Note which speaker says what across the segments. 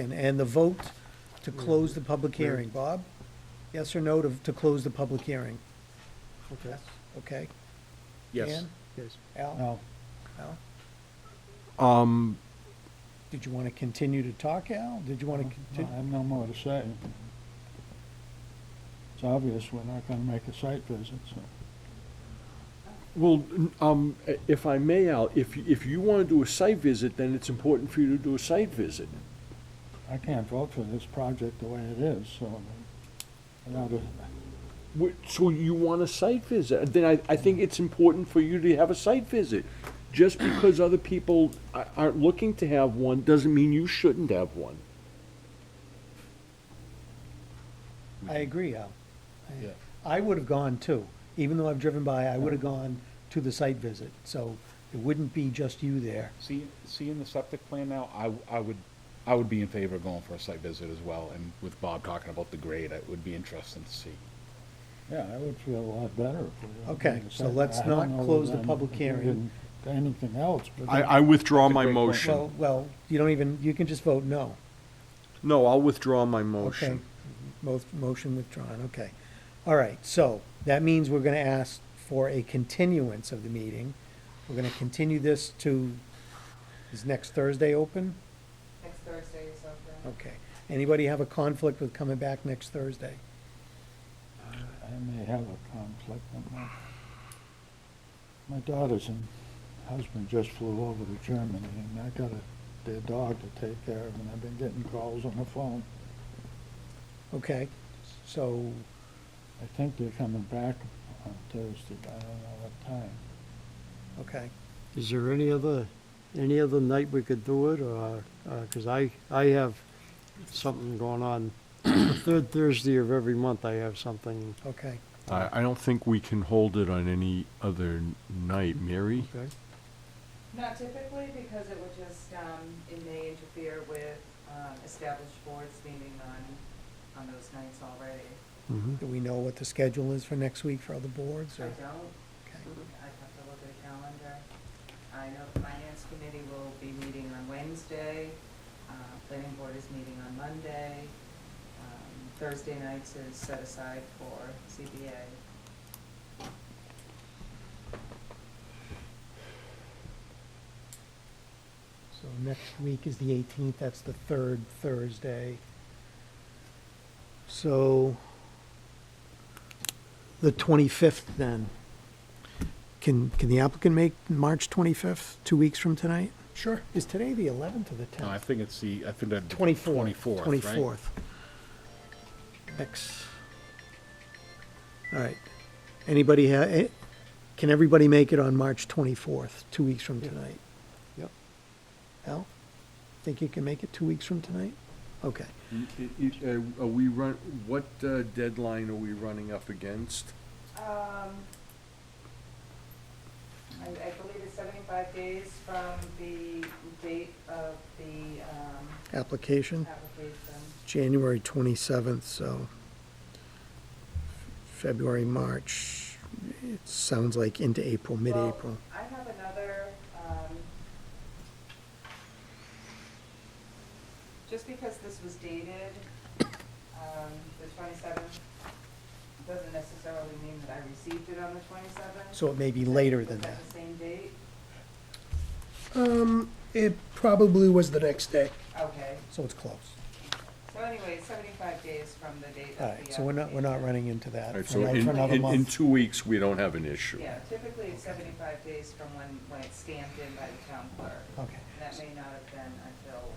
Speaker 1: And, and the vote to close the public hearing, Bob? Yes or no to, to close the public hearing?
Speaker 2: Okay.
Speaker 1: Okay?
Speaker 3: Yes.
Speaker 1: Dan?
Speaker 2: Yes.
Speaker 1: Al?
Speaker 2: No.
Speaker 1: Al?
Speaker 3: Um,
Speaker 1: Did you want to continue to talk, Al? Did you want to
Speaker 2: I
Speaker 1: continue?
Speaker 2: have no more to say. It's obvious we're not gonna make a site visit, so.
Speaker 3: well, n- um, i- if I may, Al, if, y- if you wanna do a site visit, then it's important for you to do a site visit.
Speaker 2: I can't vote for this project the way it is, so. without a-
Speaker 3: Wh- So you want a site visit, then I, I think it's important for you to have a site visit. Just because other people a- aren't looking to have one, doesn't mean you shouldn't have one.
Speaker 1: I agree, Al. I- I would have gone too. Even though I've driven by, I would have gone to the site visit. So it wouldn't be just you there.
Speaker 4: See, seeing the septic plan now, I, I would, I would be in favor of going for a site visit as well, and with Bob talking about the grade, it would be interesting to see.
Speaker 2: Yeah, I would feel a lot better if we. had
Speaker 1: Okay,
Speaker 2: made a
Speaker 1: so
Speaker 2: site-
Speaker 1: let's
Speaker 2: I don't
Speaker 1: not
Speaker 2: know
Speaker 1: close
Speaker 2: that
Speaker 1: the public
Speaker 2: I'm
Speaker 1: hearing.
Speaker 2: thinking Anything else, but.
Speaker 3: I, I withdraw
Speaker 4: That's a
Speaker 3: my
Speaker 4: great point.
Speaker 3: motion.
Speaker 1: Well, well, you don't even, you can just vote no.
Speaker 3: No, I'll withdraw my
Speaker 1: Okay,
Speaker 3: motion.
Speaker 1: Mo- motion withdrawn, okay. All right, so that means we're gonna ask for a continuance of the meeting. We're gonna continue this to, is next Thursday open?
Speaker 5: Next Thursday is okay.
Speaker 1: Okay. Anybody have a conflict with coming back next Thursday?
Speaker 2: I may have a conflict. but My my daughters and husband just flew over to Germany, and I got a, their dog to take care of, and I've been getting calls on the phone.
Speaker 1: Okay, so,
Speaker 2: I think they're coming back on Thursday, but I don't know what time.
Speaker 1: okay.
Speaker 6: Is there any other, any other night we could do it, or, because I, I have something going on. The third Thursday of every month, I have something,
Speaker 1: Okay,
Speaker 3: I, I don't think we can hold it on any other night, Mary?
Speaker 6: okay?
Speaker 5: Not typically, because it would just, um, it may interfere with, um, established boards meeting on, on those nights already.
Speaker 6: Mhm.
Speaker 1: do we know what the schedule is for next week for other boards
Speaker 5: I
Speaker 1: or?
Speaker 5: don't,
Speaker 1: Okay,
Speaker 5: I'd have to look at a calendar. I know the finance committee will be meeting on Wednesday, uh, planning board is meeting on Monday. Um, Thursday nights is set aside for CBA.
Speaker 1: So next week is the eighteenth, that's the third Thursday. So the twenty-fifth then. Can, can the applicant make March twenty-fifth, two weeks from tonight? Sure. Is today the eleventh or the
Speaker 4: No, I
Speaker 1: tenth?
Speaker 4: think it's the, I think that.
Speaker 1: Twenty-fourth.
Speaker 4: Twenty-fourth, right?
Speaker 1: Twenty-fourth. Next. All right. Anybody ha, eh, can everybody make it on March twenty-fourth, two weeks from tonight?
Speaker 6: Yep.
Speaker 1: Al, think you can make it two weeks from tonight? Okay.
Speaker 3: uh, Are we run, what uh, deadline are we running up against?
Speaker 5: Um, I, I believe it's seventy-five days from the date of the, um,
Speaker 1: Application,
Speaker 5: application.
Speaker 1: January twenty-seventh, so February, March, it sounds like into April, mid-April.
Speaker 5: Well, I have another, um, just because this was dated, um, the twenty-seventh, doesn't necessarily mean that I received it on the twenty-seventh.
Speaker 1: So it may be later than that.
Speaker 5: the same date?
Speaker 1: Um, it probably was the next day.
Speaker 5: Okay,
Speaker 1: So it's close.
Speaker 5: so anyway, seventy-five days from the date of the
Speaker 1: All right, so we're not, we're not
Speaker 5: application.
Speaker 1: running into that
Speaker 3: All right,
Speaker 1: for
Speaker 3: so
Speaker 1: another
Speaker 3: in,
Speaker 1: for another
Speaker 3: in, in
Speaker 1: month.
Speaker 3: two weeks, we don't have an issue.
Speaker 5: Yeah, typically it's seventy-five days from when, when it's stamped in by the town clerk.
Speaker 1: Okay,
Speaker 5: And that may not have been until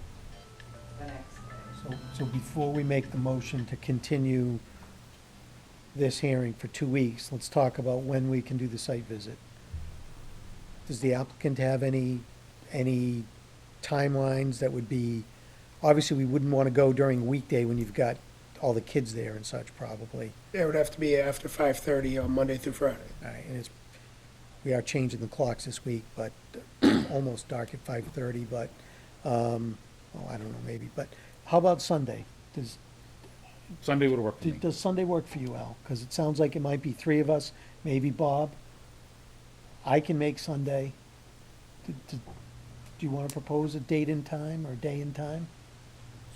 Speaker 5: the next day.
Speaker 1: so, so before we make the motion to continue this hearing for two weeks, let's talk about when we can do the site visit. Does the applicant have any, any timelines that would be, obviously, we wouldn't want to go during a weekday when you've got all the kids there and such, probably.
Speaker 7: It would have to be after five thirty on Monday through Friday.
Speaker 1: All right, and it's, we are changing the clocks this week, but almost dark at five thirty, but, um, oh, I don't know, maybe, but how about Sunday? Does,
Speaker 4: Sunday would work for me.
Speaker 1: does Sunday work for you, Al? Because it sounds like it might be three of us, maybe Bob. I can make Sunday. Do, do do you want to propose a date and time or day and time?